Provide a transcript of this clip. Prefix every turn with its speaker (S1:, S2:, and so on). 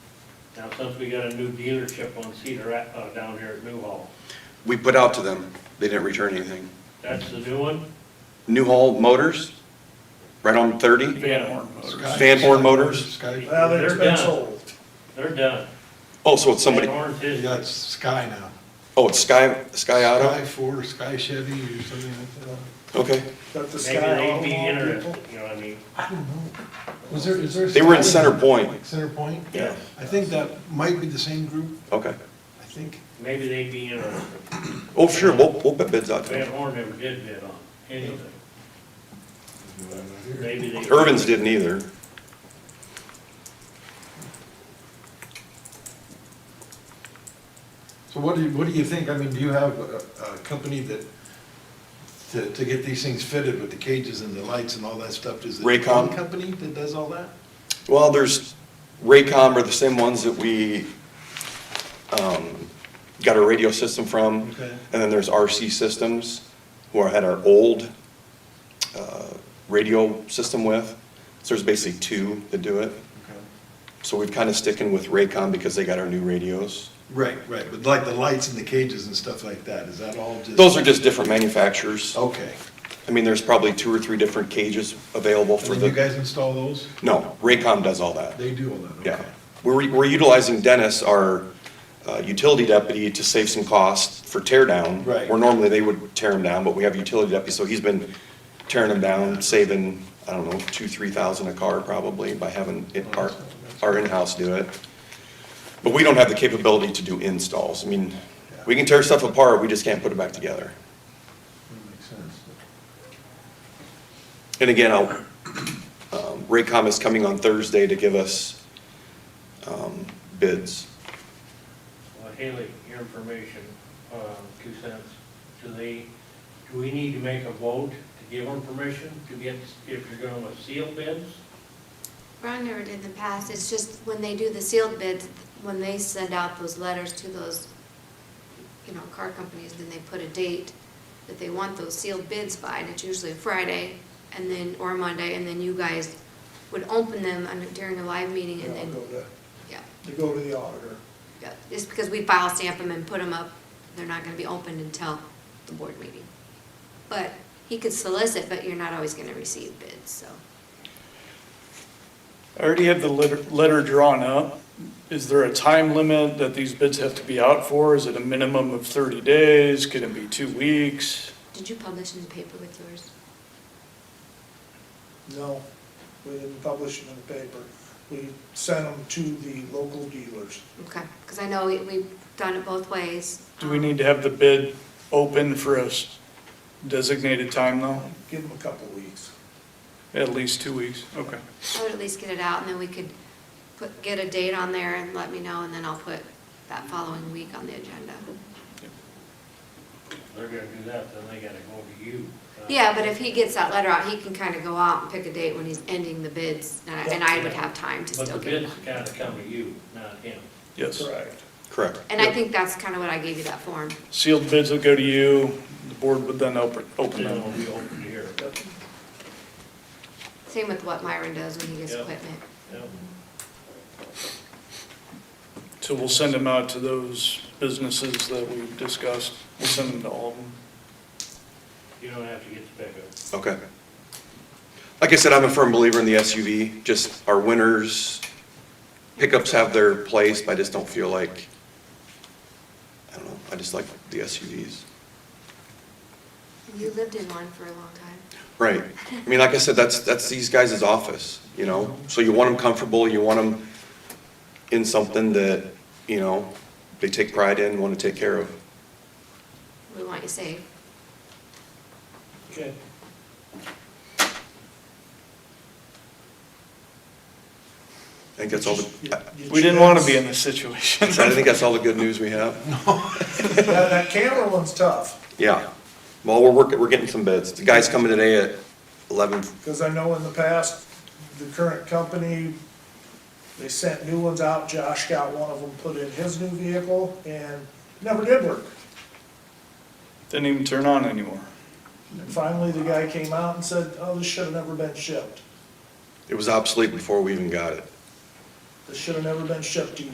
S1: Now, since we got a new dealership on Cedar, Ave- uh, down here at Newhall,
S2: We put out to them, they didn't return anything.
S1: that's the new one?
S2: Newhall Motors, right on 30,
S1: Yeah,
S2: Van Horn Motors.
S3: Sky,
S4: Well,
S1: They're
S4: they've been
S1: done.
S4: sold.
S1: they're done.
S2: Oh, so it's somebody,
S1: Van Horn's
S3: yeah,
S1: his.
S3: that's Sky now.
S2: oh, it's Sky, Sky
S3: Sky
S2: Auto?
S3: Ford, or Sky Chevy, or something like that.
S2: Okay.
S4: But the
S1: Maybe
S4: Sky
S1: they'd be
S4: Automobile people,
S1: interested, you know what I mean?
S3: I don't know. Was there, is there?
S2: They were in
S3: Sky-
S2: Center Point.
S3: Center Point?
S1: Yeah.
S3: I think that might be the same group,
S2: Okay.
S3: I think.
S1: Maybe they'd be interested.
S2: Oh, sure, we'll, we'll put bids out to
S1: Van
S2: them.
S1: Horn never did bid on anything. Maybe they.
S2: Irvin's didn't either.
S3: So what do you, what do you think? I mean, do you have a, a company that, to, to get these things fitted with the cages and the lights and all that stuff? Is it
S2: Raycom?
S3: one company that does all that?
S2: Well, there's, Raycom are the same ones that we, um, got our radio system from.
S3: Okay.
S2: And then there's RC Systems, who I had our old, uh, radio system with. So there's basically two that do it. So we've kind of sticking with Raycom because they got our new radios.
S3: Right, right, but like the lights and the cages and stuff like that, is that all just?
S2: Those are just different manufacturers.
S3: Okay.
S2: I mean, there's probably two or three different cages available
S3: And
S2: for
S3: then you
S2: the,
S3: guys install those?
S2: no, Raycom does all that.
S3: They do all that, okay.
S2: Yeah. We're, we're utilizing Dennis, our uh, utility deputy, to save some costs for tear down.
S3: Right.
S2: Where normally they would tear them down, but we have a utility deputy, so he's been tearing them down, saving, I don't know, two, three thousand a car probably by having it, our, our in-house do it. But we don't have the capability to do installs. I mean, we can tear stuff apart, we just can't put it back together.
S3: That Makes sense.
S2: And again, I'll, um, Raycom is coming on Thursday to give us, um, bids.
S1: Well, Haley, your information, uh, two cents. Do they, do we need to make a vote to give them permission to get, if you're going with seal bids?
S5: Ron never did in the past, it's just when they do the sealed bids, when they send out those letters to those, you know, car companies, then they put a date that they want those sealed bids by, and it's usually a Friday, and then, or a Monday, and then you guys would open them on- during a live meeting,
S4: you
S5: and
S4: know,
S5: then,
S4: go to-
S5: yeah,
S4: to go to the auditor.
S5: yeah. Just because we file stamp them and put them up, they're not gonna be opened until the board meeting. But he could solicit, but you're not always gonna receive bids, so.
S6: I already have the letter, letter drawn up. Is there a time limit that these bids have to be out for? Is it a minimum of 30 days? Could it be two weeks?
S5: Did you publish in the paper with yours?
S4: No, we didn't publish it in the paper. We sent them to the local dealers.
S5: Okay, because I know we- we've done it both ways. Um,
S6: Do we need to have the bid open for a s- designated time though?
S4: Give them a couple weeks.
S6: At least two weeks? Okay.
S5: I would at least get it out, and then we could put, get a date on there and let me know, and then I'll put that following week on the agenda.
S1: They're gonna do that, then they gotta go to you. uh,
S5: Yeah, but if he gets that letter out, he can kind of go out and pick a date when he's ending the bids, and I- and I would have time to
S1: But the
S5: still get it.
S1: bids gotta come to you, not him.
S6: Yes.
S4: Correct.
S2: Correct.
S5: And I think that's kind of what I gave you that form.
S6: Sealed bids will go to you. The board would then open, open
S1: Then it'll
S6: them.
S1: be open here.
S4: Yep.
S5: Same with what Myron does when he gets
S1: Yeah.
S5: equipment.
S1: Yep.
S6: So we'll send them out to those businesses that we discussed. We'll send them to all of them.
S1: You don't have to get the pickup.
S2: Okay. Like I said, I'm a firm believer in the SUV, just our winners, pickups have their place, but I just don't feel like, I don't know, I just like the SUVs.
S5: You lived in one for a long time.
S2: Right. I mean, like I said, that's, that's these guys' office, you know? So you want them comfortable, you want them in something that, you know, they take pride in, want to take care of.
S5: We want you safe.
S1: Okay.
S2: I think that's all
S4: You-
S2: the, I-
S4: you-
S6: We didn't want to be in this situation.
S2: I think that's all the good news we have.
S4: That, that camera one's tough,
S2: Yeah. Well, we're working, we're getting some bids. The guy's coming today at eleven
S4: because I know in the past, the current company, they sent new ones out. Josh got one of them put in his new vehicle and never did work.
S6: Didn't even turn on anymore.
S4: And finally, the guy came out and said, oh, this should have never been shipped.
S2: It was obsolete before we even got it.
S4: This should have never been shipped to you